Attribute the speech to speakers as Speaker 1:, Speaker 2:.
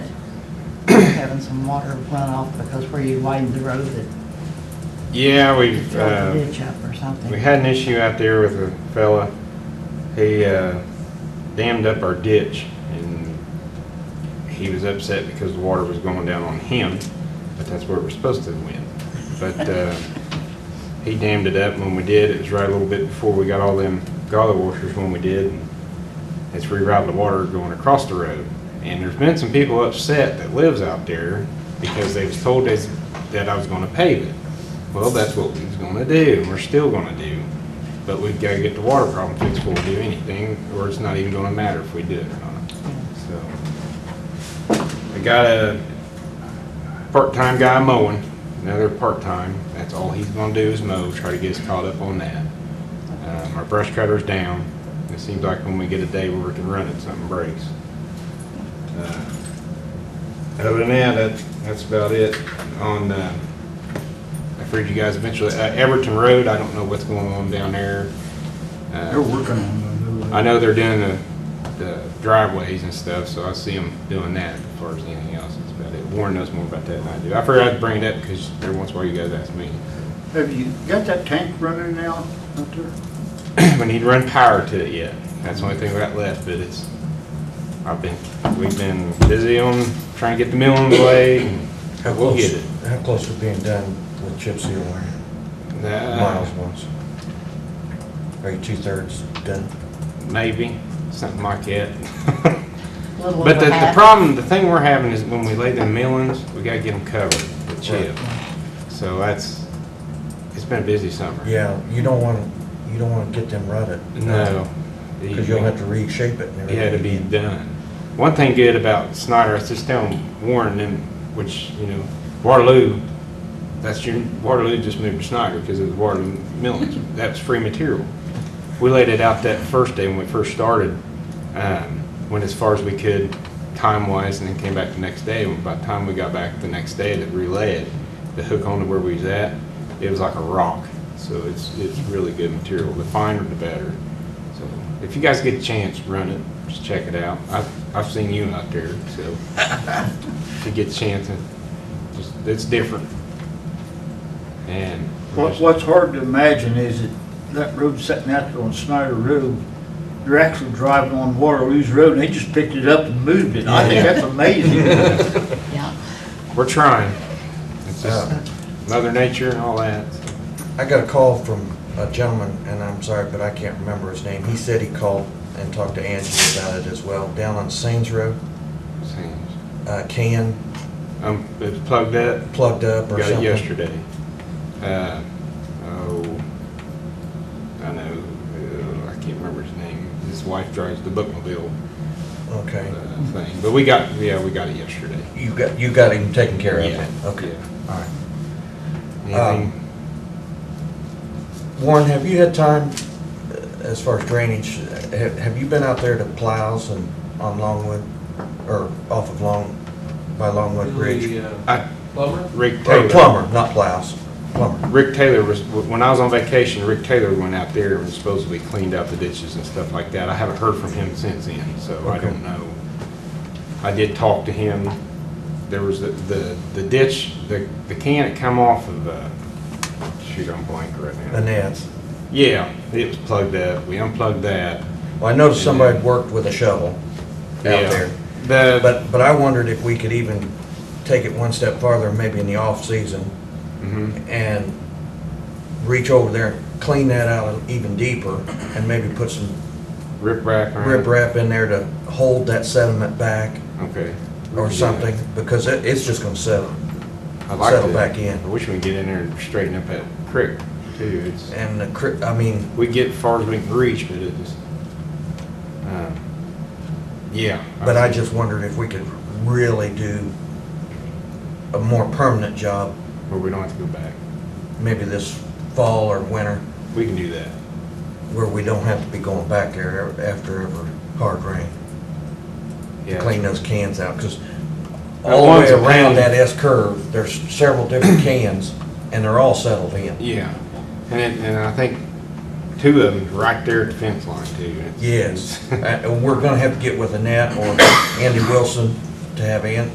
Speaker 1: having some water runoff because where you widened the road that
Speaker 2: Yeah, we've,
Speaker 1: filled the
Speaker 2: uh,
Speaker 1: ditch up or something.
Speaker 2: we had an issue out there with a fella. He uh, dammed up our ditch and he was upset because the water was going down on him, but that's where we're supposed to win. But uh, he dammed it up when we did. It was right a little bit before we got all them gully washers when we did. and It's rerouted the water going across the road. And there's been some people upset that lives out there because they was told that that I was gonna pave it. Well, that's what we was gonna do and we're still gonna do. But we've gotta get the water problem fixed before we do anything, or it's not even gonna matter if we do it or not. So, I got a part-time guy mowing, another part-time. That's all he's gonna do is mow, try to get us caught up on that. Um, Our brush cutter's down. It seems like when we get a day where we can run it, something breaks. Uh, Other than that, that, that's about it. On, uh, I've heard you guys eventually, uh, Everton Road, I don't know what's going on down there. Uh,
Speaker 3: They're working on that.
Speaker 2: I know they're doing the, the driveways and stuff, so I see them doing that as far as anything else. That's about it. Warren knows more about that than I do. I figured I'd bring it up because every once in a while you guys ask me.
Speaker 3: Have you got that tank running now out there?
Speaker 2: We need to run power to it yet. That's the only thing we got left, but it's, I've been, we've been busy on trying to get the mill on the way. and
Speaker 4: How
Speaker 2: We'll
Speaker 4: close-
Speaker 2: get it.
Speaker 4: How close to being done with chip seal wire?
Speaker 2: Uh,
Speaker 4: Miles was. Are you two-thirds done?
Speaker 2: Maybe, something like that.
Speaker 1: Little
Speaker 2: But
Speaker 1: over
Speaker 2: the, the
Speaker 1: half.
Speaker 2: problem, the thing we're having is when we lay them millings, we gotta get them covered with chip. So that's, it's been a busy summer.
Speaker 4: Yeah, you don't want to, you don't want to get them rutted.
Speaker 2: No.
Speaker 4: Because you'll have to reshape it and everything.
Speaker 2: Yeah, to be done. One thing good about Snyder, I was just telling Warren and, which, you know, Waterloo, that's your, Waterloo just moved to Snyder because of the Waterloo millings. That's free material. We laid it out that first day when we first started, um, went as far as we could time-wise and then came back the next day. And By the time we got back the next day to relay it, the hook onto where we was at, it was like a rock. So it's, it's really good material. The finer the better. So if you guys get a chance, run it, just check it out. I've, I've seen you out there, so if you get a chance, and just, it's different. And.
Speaker 3: What, what's hard to imagine is that that road sitting out there on Snyder Road, they're actually driving on Waterloo's Road, and they just picked it up and moved it. I think that's amazing.
Speaker 1: Yeah.
Speaker 2: We're trying. It's just mother nature and all that. so.
Speaker 4: I got a call from a gentleman, and I'm sorry, but I can't remember his name. He said he called and talked to Angie about it as well, down on Sains Road,
Speaker 2: Seems-
Speaker 4: uh, can
Speaker 2: Um, it's plugged up.
Speaker 4: plugged up or
Speaker 2: Got it
Speaker 4: something.
Speaker 2: yesterday. Uh, oh, I know, uh, I can't remember his name. His wife drives the bookmobile
Speaker 4: Okay.
Speaker 2: uh, thing. But we got, yeah, we got it yesterday.
Speaker 4: You got, you got him taken care of?
Speaker 2: Yeah,
Speaker 4: Okay. All right.
Speaker 2: Anything?
Speaker 4: Warren, have you had time, uh, as far as drainage, have, have you been out there to plows and on Longwood, or off of Long, by Longwood Bridge?
Speaker 5: Billy, uh,
Speaker 2: I,
Speaker 5: Plummer?
Speaker 2: Rick
Speaker 4: Or
Speaker 2: Taylor.
Speaker 4: plumber, not plows, plumber.
Speaker 2: Rick Taylor was, when I was on vacation, Rick Taylor went out there and supposedly cleaned out the ditches and stuff like that. I haven't heard from him since then, so I
Speaker 4: Okay.
Speaker 2: don't know. I did talk to him. There was the, the the ditch, the, the can had come off of, uh, shoot, I'm blank right
Speaker 4: The
Speaker 2: now.
Speaker 4: nets.
Speaker 2: Yeah, it was plugged up. We unplugged that.
Speaker 4: Well, I noticed somebody had worked with a shovel out
Speaker 2: Yeah.
Speaker 4: there.
Speaker 2: The,
Speaker 4: But, but I wondered if we could even take it one step farther, maybe in the off-season,
Speaker 2: mhm.
Speaker 4: and reach over there, and clean that out even deeper, and maybe put some
Speaker 2: riprap around.
Speaker 4: riprap in there to hold that sediment back.
Speaker 2: Okay.
Speaker 4: or something, because it, it's just gonna settle.
Speaker 2: I like
Speaker 4: settle
Speaker 2: that.
Speaker 4: back in.
Speaker 2: I wish we could get in there and straighten up that creek too. It's.
Speaker 4: And the cri, I mean,
Speaker 2: we get as far as we can reach, but it is, um, yeah.
Speaker 4: but I just wondered if we could really do a more permanent job,
Speaker 2: Where we don't have to go back.
Speaker 4: maybe this fall or winter,
Speaker 2: We can do that.
Speaker 4: where we don't have to be going back there ev- after every hard rain.
Speaker 2: Yeah.
Speaker 4: Clean those cans out, because
Speaker 2: That
Speaker 4: all the way
Speaker 2: one's a
Speaker 4: around
Speaker 2: pain.
Speaker 4: that S curve, there's several different cans, and they're all settled in.
Speaker 2: Yeah. And it, and I think two of them right there at the fence line too. It's-
Speaker 4: Yes, Uh, and we're gonna have to get with Annette or Andy Wilson to have An,